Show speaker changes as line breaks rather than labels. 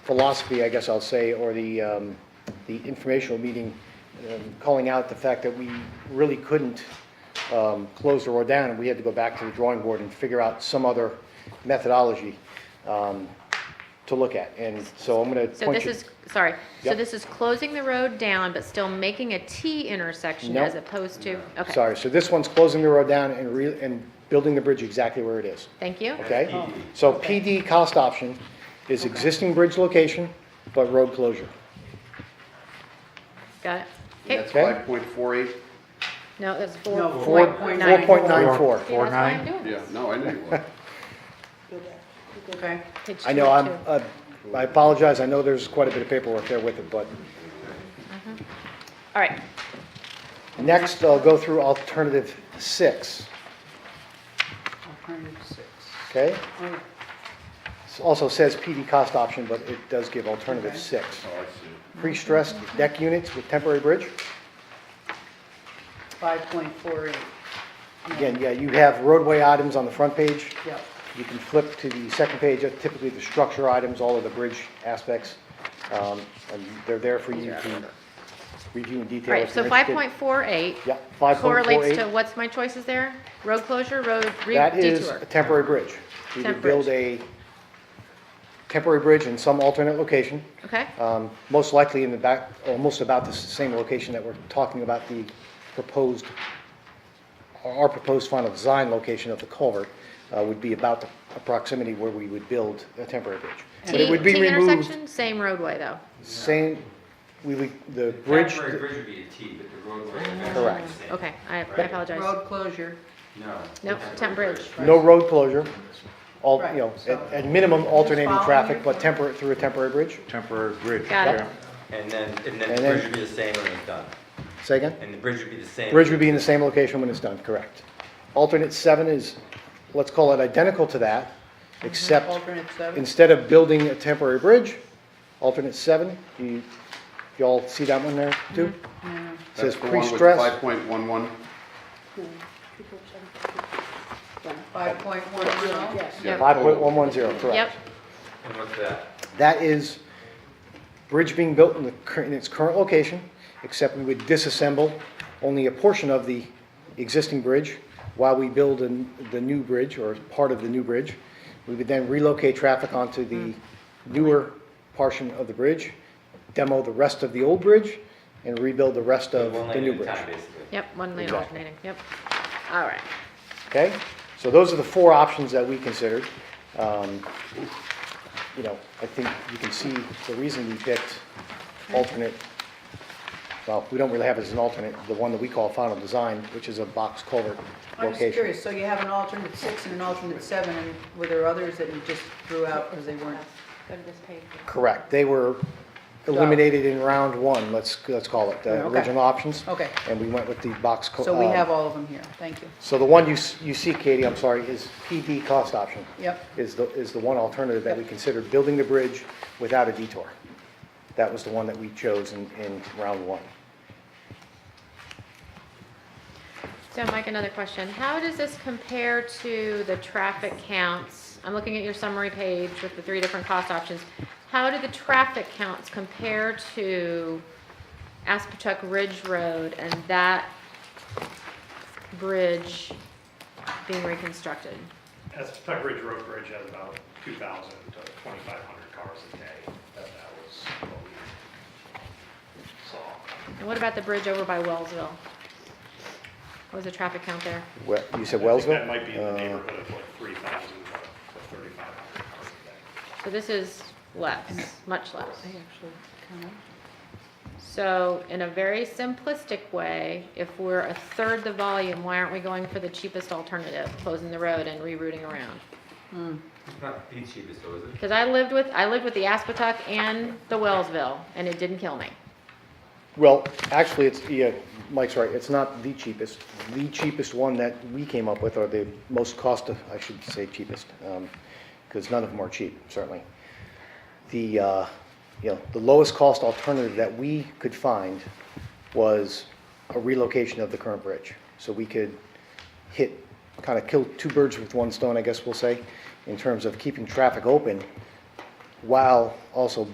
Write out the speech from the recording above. philosophy, I guess I'll say, or the, um, the informational meeting, um, calling out the fact that we really couldn't um, close the road down, and we had to go back to the drawing board and figure out some other methodology um, to look at. And so I'm going to
So
point
this
you.
is, sorry, so
Yep.
this is closing the road down, but still making a T intersection
Nope.
as opposed to, okay,
Sorry, so this one's closing the road down and re, and building the bridge exactly where it is.
thank you.
Okay? So PD cost option is existing bridge location, but road closure.
Got it. Okay,
That's
Okay.
five point four eight?
no, that's
No,
four
Four,
point nine.
4.94.
See, that's why
4.9.
I'm doing
Yeah,
this.
no, I knew you were.
Okay.
Page
I know, I'm,
22.
uh, I apologize, I know there's quite a bit of paperwork there with it, but
All right,
next, I'll go through alternative six,
Alternative six.
okay?
Oh,
It Also says PD cost option, but it does give alternative
Okay.
six.
Oh, I see.
Pre-stressed deck units with temporary bridge.
5.48.
Again, yeah, you have roadway items on the front page.
Yep.
You can flip to the second page, that's typically the structure items, all of the bridge aspects. um, And they're there for you to review in
all
detail.
right,
if you're
so five
interested.
point four eight
Yeah, 5.48.
correlates to, what's my choices there? Road closure, road re-
That is
detour.
a temporary bridge. You
Temp
could build a temporary bridge in some alternate location,
Okay,
um, most likely in the back, almost about the s- same location that we're talking about the proposed, our proposed final design location of the culvert uh, would be about the proximity where we would build a temporary bridge. But
T,
it would be
T
removed,
intersection, same roadway though.
same, we would, the bridge,
Temporary bridge would be a T, but the roadway.
Correct.
Okay, I I
Right.
apologize.
Road closure.
No.
No, temp bridge.
no road closure, all,
Right,
you know,
so-
at at minimum alternating
Following
traffic,
your
but
plan.
temporary, through a temporary bridge.
Temporary bridge.
Got it.
yeah.
And then, and
And
then the
then-
bridge would be the same when it's done.
Say again?
And the bridge would be the same.
Bridge would be in the same location when it's done, correct. Alternate seven is, let's call it identical to that, except
Alternate seven.
instead of building a temporary bridge, alternate seven, you, y'all see that one there too? Says
That's the one with Five
pre-stress,
point one one?
5.10.
five point one one zero,
Yep,
correct.
And what's that?
That is bridge being built in the, cur- in its current location, except we would disassemble only a portion of the existing bridge while we build an- the new bridge, or part of the new bridge. We would then relocate traffic onto the newer portion of the bridge, demo the rest of the old bridge, and rebuild the rest of
One
the
lane
new
at a
bridge.
time, basically.
yep, one lane
Exactly.
alternating, yep. All right.
Okay? So those are the four options that we considered. Um, You know, I think you can see the reason we picked alternate, well, we don't really have it as an alternate, the one that we call final design, which is a box culvert
I'm just
location.
curious, so you have an alternate six and an alternate seven, and were there others that you just threw out because they weren't?
Go to this page.
Correct. They were eliminated in round one, let's, let's call it, the
Okay.
original options.
Okay.
And we went with the box. cul-
So we
um,
have all of them here, thank you.
So the one you, s- you see, Katie, I'm sorry, is PD cost option.
Yep.
Is the, is the one alternative that we
Yep.
considered, building the bridge without a detour. That was the one that we chose in, in round one.
So Mike, another question. How does this compare to the traffic counts? I'm looking at your summary page with the three different cost options. How do the traffic counts compare to Aspetuck Ridge Road and that bridge being reconstructed?
As Tuck Ridge Road Bridge has about 2,000 to 2,500 cars a day, that that was what we saw.
And what about the bridge over by Wellsville? What was the traffic count there?
Well, you said
I think that
Wellsville?
might be in the
Uh,
neighborhood of like 3,000 to 3,500 cars a day.
So this is less, much less. So in a very simplistic way, if we're a third the volume, why aren't we going for the cheapest alternative, closing the road and rerouting around?
It's not the cheapest though, is it?
Because I lived with, I lived with the Aspetuck and the Wellsville, and it didn't kill me.
Well, actually, it's, yeah, Mike's right, it's not the cheapest. The cheapest one that we came up with, or the most cost, I should say cheapest, because none of them are cheap, certainly. The, uh, you know, the lowest cost alternative that we could find was a relocation of the current bridge. So we could hit, kind of kill two birds with one stone, I guess we'll say, in terms of keeping traffic open while also